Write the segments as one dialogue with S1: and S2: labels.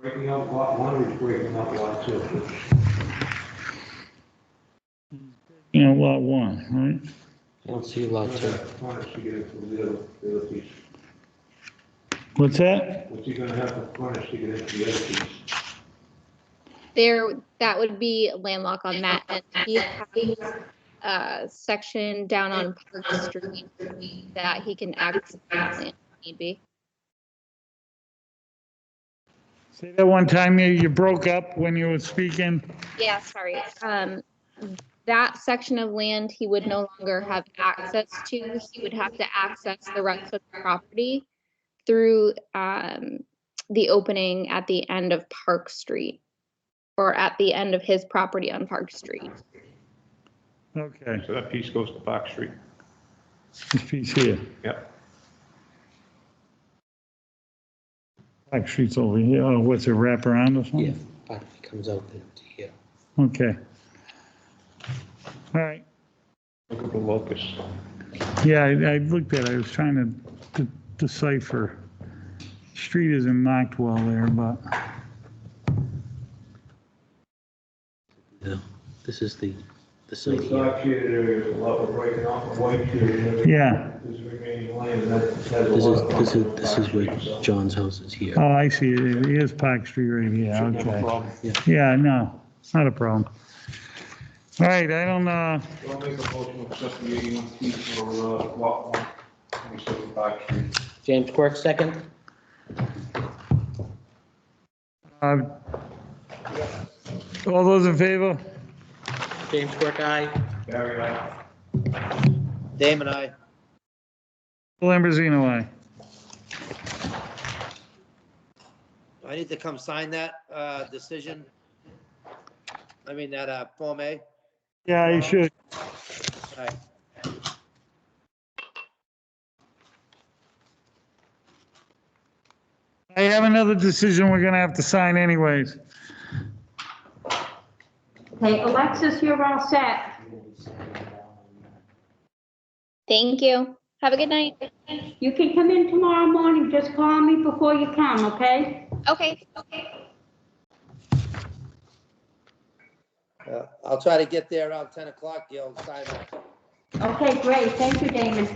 S1: breaking up lot one or is breaking up lot two?
S2: you know, lot one, right?
S3: I don't see lot two.
S1: Furnace to get it from the other, the other piece.
S2: What's that?
S1: What's he gonna have for furnace to get it to the other piece?
S4: There, that would be landlocked on that end. He has a section down on Park Street that he can access if need be.
S2: Say that one time you, you broke up when you were speaking.
S4: Yeah, sorry. Um, that section of land he would no longer have access to. He would have to access the rest of the property through, um, the opening at the end of Park Street or at the end of his property on Park Street.
S2: Okay,
S5: So that piece goes to Fox Street.
S2: this piece here.
S5: Yep.
S2: Black Street's over here. Oh, what's it, wrap around or
S3: Yeah,
S2: something?
S3: but it comes out to here.
S2: Okay. All right.
S5: Look at the locus.
S2: Yeah, I, I looked at, it. I was trying to de- decipher. Street isn't marked well there, but,
S3: No, this is the, the
S1: So
S3: side
S1: it's
S3: here.
S1: not shaded area, a lot of breaking off of white shaded area.
S2: yeah.
S1: There's remaining land and that has a
S3: This
S1: lot
S3: is,
S1: of.
S3: this
S1: frontage on Fox
S3: is, this is where
S1: Street, so-
S3: John's house is here.
S2: Oh, I see. It is Park Street right here.
S5: Shouldn't have a
S2: Okay.
S5: problem.
S2: Yeah, no, it's not a problem. All right, I don't, uh,
S1: So I'll make a motion to accept the eighty-one feet for, uh, lot one, twenty-seven Fox Street.
S3: James Quirk, second.
S2: uh, all those in favor?
S3: James Quirk, aye.
S1: Gary, I.
S3: Damon, aye.
S2: Lambrosino, aye.
S6: Do I need to come sign that uh, decision? I mean, that uh, Form A?
S2: Yeah, you should.
S6: All right.
S2: I have another decision we're gonna have to sign anyways.
S7: Okay, Alexis, you're all set.
S4: Thank you. Have a good night.
S7: You can come in tomorrow morning, just call me before you come, okay?
S4: Okay, okay.
S6: Uh, I'll try to get there around 10 o'clock, You'll sign that.
S7: Okay, great, thank you, Damon.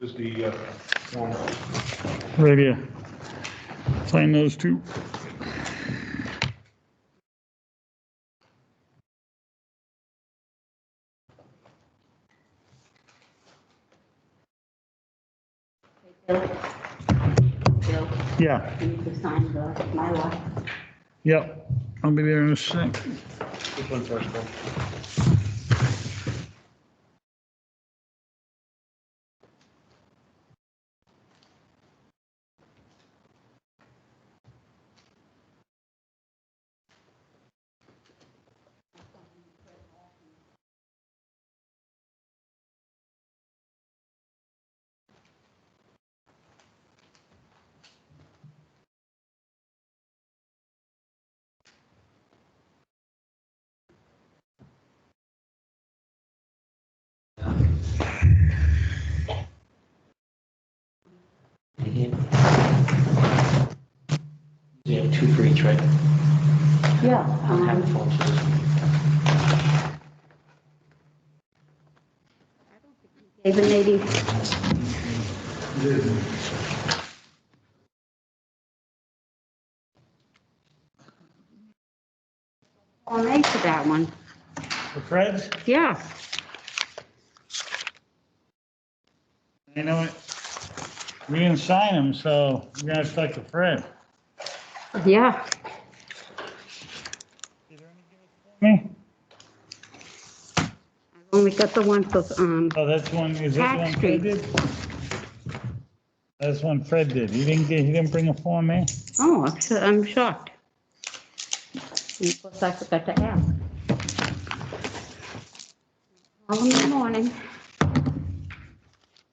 S5: This is the, uh, one.
S2: Right here. Sign those two.
S7: Bill,
S2: Yeah,
S7: you need to sign the, my lot.
S2: yep. I'll be there in a sec.
S3: Which one first, Bill? You have two for each, right?
S7: Yeah.
S3: Have a
S7: um,
S3: phone, so-
S7: David, maybe. Form A for that one,
S2: For Fred?
S7: yeah.
S2: You know what? We didn't sign them, so we gotta talk to Fred.
S7: Yeah.
S2: Me?
S7: Only got the one for, um,
S2: Oh, that's one, is that
S7: Tax
S2: one Fred
S7: Street.
S2: did? That's one Fred did. He didn't, get- he didn't bring a Form A?
S7: oh, I'm su- I'm shocked. And Of course, I forgot to ask. Call in the morning.